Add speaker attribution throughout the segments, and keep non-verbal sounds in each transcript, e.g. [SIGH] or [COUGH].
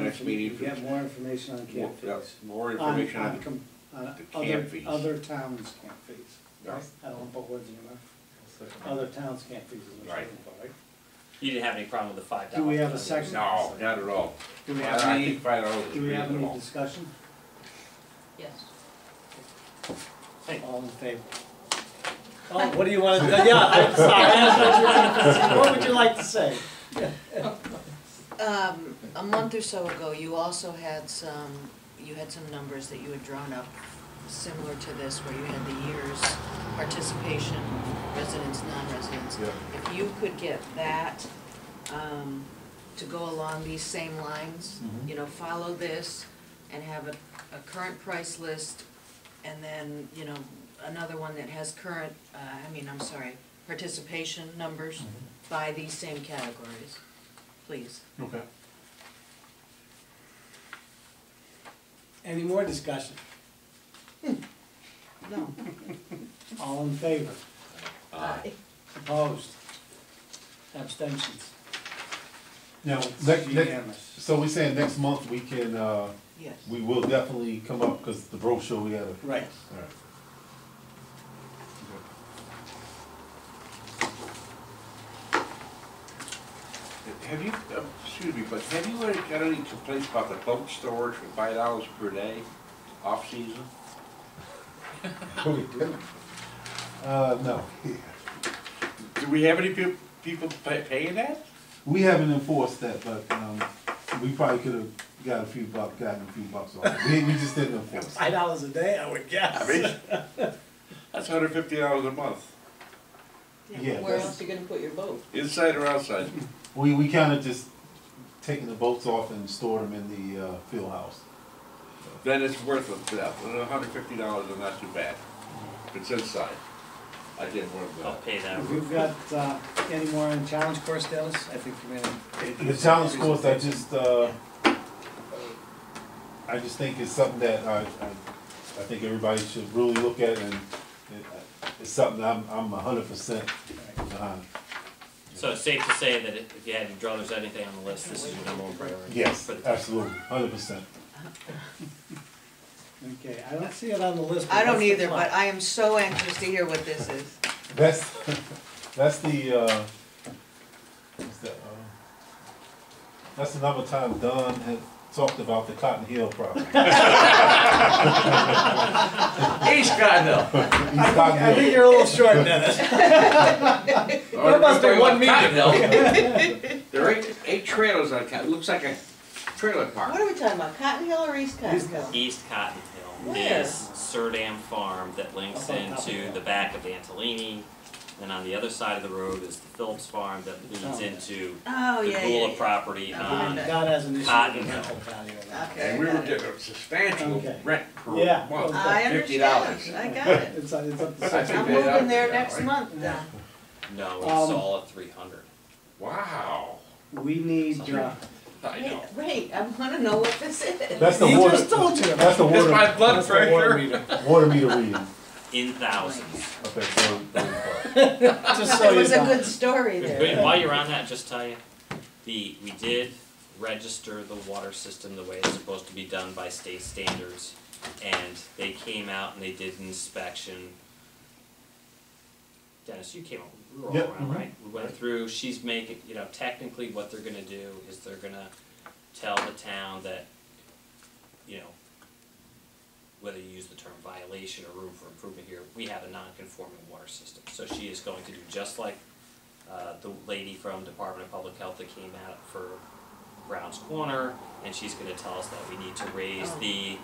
Speaker 1: next meeting.
Speaker 2: You get more information on
Speaker 1: More-
Speaker 2: camp
Speaker 1: yeah,
Speaker 2: fees.
Speaker 1: More information on,
Speaker 2: com- on
Speaker 1: the
Speaker 2: other,
Speaker 1: camp fees.
Speaker 2: other towns' camp fees.
Speaker 1: Yeah.
Speaker 2: I don't want to put words in your mouth. Other towns' camp fees is what you're
Speaker 1: Right.
Speaker 2: looking for, right?
Speaker 3: You didn't have any problem with the five
Speaker 2: Do
Speaker 3: dollars?
Speaker 2: we have a second?
Speaker 1: no, not at all.
Speaker 2: Do we
Speaker 1: I
Speaker 2: have
Speaker 1: think
Speaker 2: any,
Speaker 1: Five dollars is
Speaker 2: do we have any
Speaker 1: reasonable.
Speaker 2: discussion?
Speaker 4: Yes.
Speaker 3: Hey.
Speaker 2: All in favor? Oh, what do you want to, yeah, I'm sorry, I asked what you wanted to say. What would you like to say?
Speaker 4: Um, a month or so ago, you also had some, you had some numbers that you had drawn up similar to this, where you had the years, participation, residents, non-residents. If you could get that, um, to go along these same lines, you know, follow this and have a, a current price list, and then, you know, another one that has current, uh, I mean, I'm sorry, participation numbers by these same categories, please.
Speaker 5: Okay.
Speaker 2: Any more discussion?
Speaker 4: No.
Speaker 2: All in favor?
Speaker 4: Aye.
Speaker 2: Opposed? Abstentions?
Speaker 5: Now,
Speaker 2: It's
Speaker 5: next, next,
Speaker 2: unanimous.
Speaker 5: so we saying next month we can, uh,
Speaker 4: Yes.
Speaker 5: we will definitely come up, cause the brochure we gotta.
Speaker 2: Right.
Speaker 5: Alright.
Speaker 1: Have you, uh, excuse me, but have you uh, got any complaints about the boat storage for five dollars per day, off-season?
Speaker 5: Uh, no,
Speaker 1: Do we have any peop- people pa- paying that?
Speaker 5: we haven't enforced that, but, um, we probably could've got a few bucks, gotten a few bucks off, it. we, we just didn't enforce it.
Speaker 2: Five dollars a day, I would
Speaker 1: I
Speaker 2: guess.
Speaker 1: mean, [LAUGHS] that's hundred fifty dollars a month,
Speaker 4: Where
Speaker 5: Yeah, that's-
Speaker 4: else are you gonna put your boat?
Speaker 1: inside or outside?
Speaker 5: We, we kinda just taking the boats off and stored them in the, uh, field house.
Speaker 1: Then it's worth it, yeah, hundred fifty dollars is not too bad, if it's inside. I did one of
Speaker 3: I'll
Speaker 1: those.
Speaker 3: pay that.
Speaker 2: We've got, uh, any more on challenge course, Dennis? I think you made a.
Speaker 5: The challenge course, I just, uh, I just think it's something that I, I, I think everybody should really look at and it- it's something I'm, I'm a hundred percent behind.
Speaker 3: So it's safe to say that if if you had to draw, there's anything on the list, this is your number one priority?
Speaker 5: Yes,
Speaker 3: For the-
Speaker 5: absolutely, hundred percent.
Speaker 2: Okay, I don't see it on the list.
Speaker 4: I don't
Speaker 2: what's the
Speaker 4: either,
Speaker 2: plan?
Speaker 4: but I am so anxious to hear what this is.
Speaker 5: That's, [LAUGHS] that's the, uh, what's that, uh, that's another time Don had talked about the Cotton
Speaker 1: [LAUGHS]
Speaker 5: Hill property. East Cotton Hill. East Cotton
Speaker 2: I think
Speaker 5: Hill.
Speaker 2: you're a little
Speaker 5: [LAUGHS]
Speaker 2: short,
Speaker 4: [LAUGHS]
Speaker 2: Dennis. What about the one meeting?
Speaker 1: There are eight, eight trailers on, it looks like a trailer park.
Speaker 4: What are we talking about, Cotton Hill or East Cotton Hill?
Speaker 3: East Cotton Hill
Speaker 4: Where?
Speaker 3: is Surdam Farm that links
Speaker 2: Up on top of
Speaker 3: into
Speaker 2: that.
Speaker 3: the back of Antolini. Then on the other side of the road is the Phillips Farm that leads
Speaker 2: Oh.
Speaker 3: into
Speaker 4: Oh,
Speaker 3: the
Speaker 4: yeah, yeah,
Speaker 3: Gula
Speaker 4: yeah.
Speaker 3: property
Speaker 4: Yeah.
Speaker 3: on,
Speaker 4: Yeah.
Speaker 2: God has an issue
Speaker 3: Cotton
Speaker 2: with the
Speaker 3: Hill.
Speaker 2: rental value of that.
Speaker 4: Okay, I
Speaker 1: And we were
Speaker 4: got it.
Speaker 1: getting a substantial
Speaker 2: Okay.
Speaker 1: rent per
Speaker 2: Yeah.
Speaker 1: month.
Speaker 4: I
Speaker 1: $50.
Speaker 4: understand, I got it.
Speaker 2: It's, it's up to
Speaker 1: I
Speaker 2: six.
Speaker 1: think
Speaker 4: I'm
Speaker 1: they are
Speaker 4: moving there
Speaker 1: now,
Speaker 4: next
Speaker 1: right?
Speaker 4: month then.
Speaker 3: no, it's
Speaker 2: Um,
Speaker 3: all at three hundred.
Speaker 1: Wow,
Speaker 2: We need, uh,
Speaker 1: I know.
Speaker 4: Wait, Wait, I wanna know what this is. [LAUGHS]
Speaker 5: That's the
Speaker 2: he
Speaker 5: water.
Speaker 2: just told you.
Speaker 5: That's the
Speaker 1: It's my
Speaker 5: water,
Speaker 1: blood
Speaker 2: That's the water
Speaker 1: pressure.
Speaker 2: meter.
Speaker 5: water meter reading.
Speaker 3: In thousands.
Speaker 5: Okay, so,
Speaker 2: Just so
Speaker 4: It
Speaker 2: you
Speaker 4: was a
Speaker 2: know.
Speaker 4: good story
Speaker 3: Wait,
Speaker 4: there.
Speaker 3: while you're on that, just tell you, the, we did register the water system the way it's supposed to be done by state standards. And they came out and they did an inspection. Dennis, you came, we were all
Speaker 5: Yep,
Speaker 3: around,
Speaker 5: mhm.
Speaker 3: right? We went through, she's making, you know, technically what they're gonna do is they're gonna tell the town that, you know, whether you use the term violation or room for improvement here, we have a non-conforming water system. So she is going to do just like uh, the lady from Department of Public Health that came out for Brown's Corner, and she's gonna tell us that we need to raise the,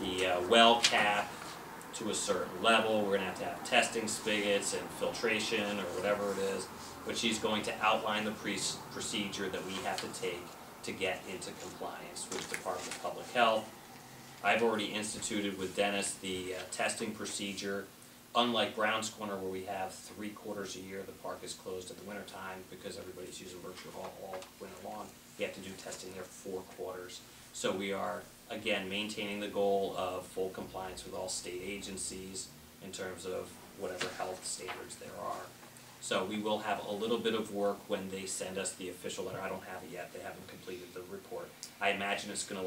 Speaker 3: the uh, well cap to a certain level, we're gonna have to have testing spigots and filtration or whatever it is, but she's going to outline the pre- procedure that we have to take to get into compliance with Department of Public Health. I've already instituted with Dennis the uh, testing procedure. Unlike Brown's Corner where we have three quarters a year, the park is closed at the winter time because everybody's using Berkshire Hall all winter long. We have to do testing there four quarters. So we are, again, maintaining the goal of full compliance with all state agencies in terms of whatever health standards there are. So we will have a little bit of work when they send us the official letter. I don't have it yet. They haven't completed the report. I imagine it's gonna